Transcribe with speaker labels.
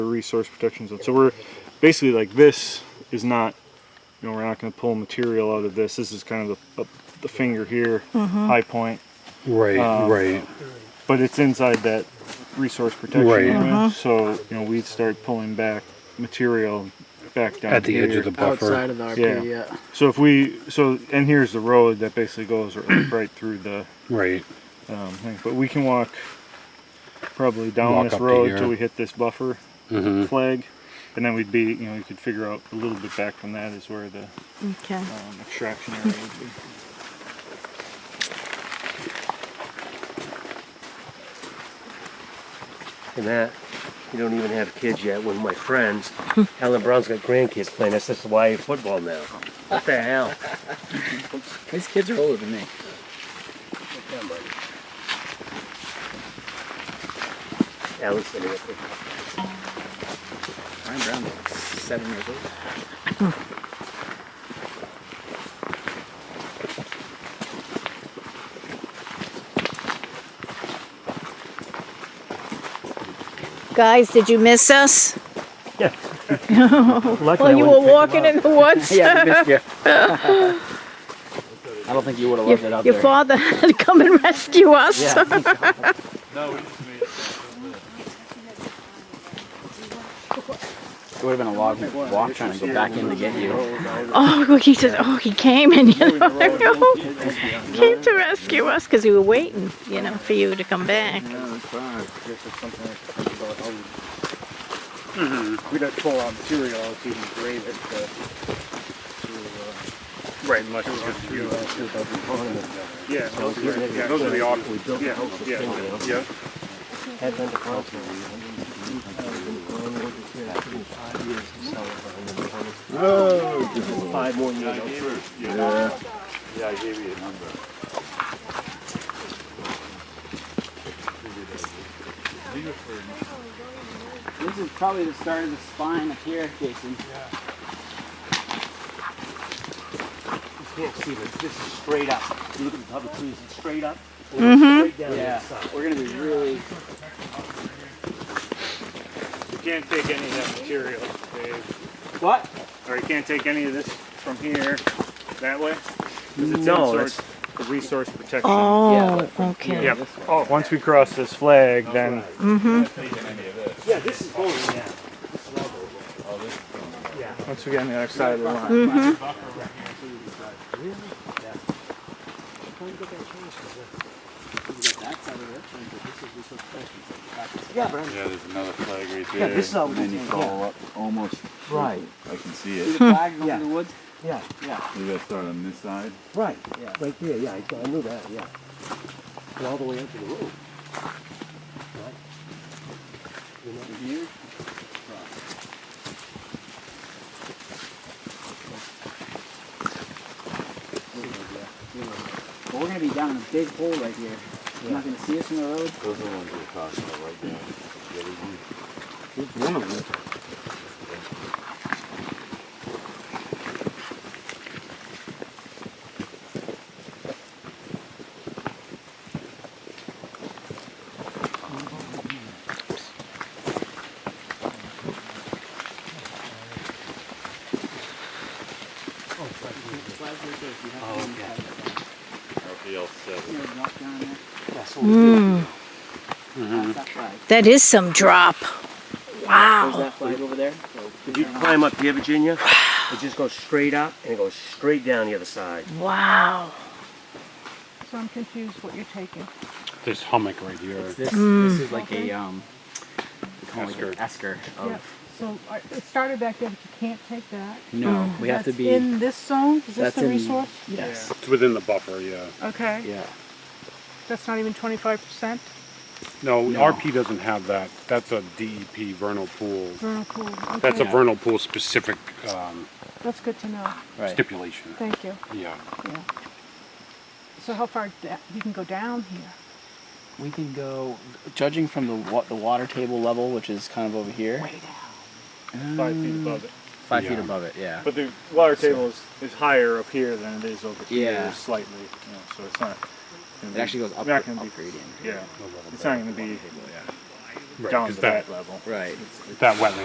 Speaker 1: resource protection zone. So we're basically like this is not, you know, we're not going to pull material out of this. This is kind of the, the finger here, high point,
Speaker 2: Right,
Speaker 3: Um,
Speaker 2: right.
Speaker 1: but it's inside that resource protection
Speaker 2: Right.
Speaker 1: area. So you know we'd start pulling back material back down
Speaker 2: At the edge of
Speaker 1: here.
Speaker 2: the buffer.
Speaker 3: outside of the RP. Yeah.
Speaker 1: So if we so and here's the road that basically goes right, right through the
Speaker 2: Right.
Speaker 1: um, thing. But we can walk probably down
Speaker 2: Walk
Speaker 1: this
Speaker 2: up to
Speaker 1: road
Speaker 2: here. Mm-hmm.
Speaker 1: till we hit this buffer flag, and then we'd be, you know, we could figure out a little bit back from that is where the
Speaker 4: Okay.
Speaker 1: um, extraction area would be.
Speaker 5: And that, you don't even have kids yet. One of my friends, Helen Brown's got grandkids playing SSY football now. What the hell?
Speaker 3: These kids are older than me.
Speaker 5: Alan's sitting up there.
Speaker 3: Ryan Brown's like seven years old.
Speaker 4: Guys, did you miss us?
Speaker 5: Luckily,
Speaker 4: Well,
Speaker 5: I
Speaker 4: you were
Speaker 5: wouldn't pick him
Speaker 4: walking
Speaker 5: up.
Speaker 4: in the woods.
Speaker 3: Yeah, we missed you. I don't think you would have loved it
Speaker 4: Your,
Speaker 3: out
Speaker 4: your
Speaker 3: there.
Speaker 4: father had to come and rescue us.
Speaker 3: Yeah. It would have been a long walk trying to go back in to get you.
Speaker 4: Oh, he just, oh, he came and you know, I know. came to rescue us because we were waiting, you know, for you to come back.
Speaker 6: We don't pull on material out, it's even grade it to, to,
Speaker 2: Right, unless
Speaker 6: uh, to, uh, to the component.
Speaker 2: yeah, those are, yeah, those are the
Speaker 5: We
Speaker 2: options.
Speaker 5: built the
Speaker 2: Yeah,
Speaker 5: house with
Speaker 2: yeah,
Speaker 5: Finley.
Speaker 2: yeah.
Speaker 5: Had been to Toronto. Five years to sell it. Five more years.
Speaker 2: Yeah, I gave you a number.
Speaker 3: This is probably the start of the spine up here, Jason.
Speaker 5: You can't see this. This is straight up. You look at the public trees, it's straight up. Mm-hmm. Straight down to the
Speaker 3: Yeah,
Speaker 5: side.
Speaker 3: we're gonna be really.
Speaker 1: You can't take any of that material, Dave,
Speaker 3: What?
Speaker 1: or you can't take any of this from here that way. 'cause it's
Speaker 5: No,
Speaker 1: in
Speaker 5: that's-
Speaker 1: sort of the resource protection.
Speaker 3: Yeah,
Speaker 4: Oh,
Speaker 3: but
Speaker 4: okay.
Speaker 1: Yep. Oh, once we cross this flag, then
Speaker 5: Yeah, this is going down.
Speaker 1: once we get on the other side of the line.
Speaker 2: Yeah, there's another flag right there.
Speaker 5: Yeah, this is all we
Speaker 7: Then you follow up almost.
Speaker 5: Right.
Speaker 7: I can see
Speaker 3: See the
Speaker 7: it.
Speaker 3: flag over
Speaker 5: Yeah.
Speaker 3: the woods?
Speaker 5: Yeah,
Speaker 7: We gotta start on this side.
Speaker 5: right.
Speaker 3: Yeah.
Speaker 5: Right there, yeah, I I knew that, yeah. And all the way up to the road. Right. You know, here,
Speaker 3: But we're gonna be down in a big hole right here. You're not gonna see us from the road.
Speaker 7: Those are the ones we're talking about right now. The other one.
Speaker 2: RPL seven.
Speaker 3: You know, knock down there.
Speaker 5: that's what we do.
Speaker 3: That's that flag.
Speaker 4: That is some drop.
Speaker 3: There's
Speaker 4: Wow.
Speaker 3: that flag over there.
Speaker 5: If you climb up here, Virginia, it just goes straight up and it goes straight down the other side.
Speaker 4: Wow.
Speaker 8: So I'm confused what you're taking.
Speaker 2: This hummock right here.
Speaker 3: This,
Speaker 8: Mm.
Speaker 3: this is like a um, we call it like an esker. Of,
Speaker 8: Yep. So I- it started back there, but you can't take that.
Speaker 3: No, we have to
Speaker 8: Mm. That's
Speaker 3: be.
Speaker 8: In this zone, is this
Speaker 3: that's
Speaker 8: the
Speaker 3: in-
Speaker 8: resource?
Speaker 3: yes.
Speaker 2: It's within the buffer, yeah.
Speaker 8: Okay,
Speaker 3: Yeah.
Speaker 8: that's not even twenty-five percent
Speaker 2: No,
Speaker 3: No.
Speaker 2: RP doesn't have that. That's a DEP vernal pool.
Speaker 8: vernal pool.
Speaker 2: Oh, That's a
Speaker 8: Okay.
Speaker 2: vernal pool specific um,
Speaker 8: That's good to know,
Speaker 3: Right.
Speaker 2: stipulation.
Speaker 8: thank you,
Speaker 2: Yeah.
Speaker 8: yeah. So how far, da- you can go down here?
Speaker 3: We can go, judging from the wa- the water table level, which is kind of over here,
Speaker 8: Way down.
Speaker 1: Five feet above it.
Speaker 3: five
Speaker 2: Yeah.
Speaker 3: feet above it. Yeah.
Speaker 1: But the water table is, is higher up here than it is over
Speaker 3: Yeah.
Speaker 1: here slightly, you know, so it's not. gonna
Speaker 3: It
Speaker 1: be-
Speaker 3: actually goes up,
Speaker 1: not gonna be-
Speaker 3: up gradient.
Speaker 1: Yeah, it's not gonna be
Speaker 9: down
Speaker 2: is
Speaker 9: to
Speaker 2: that-
Speaker 9: that level.
Speaker 1: Right.
Speaker 2: that wetland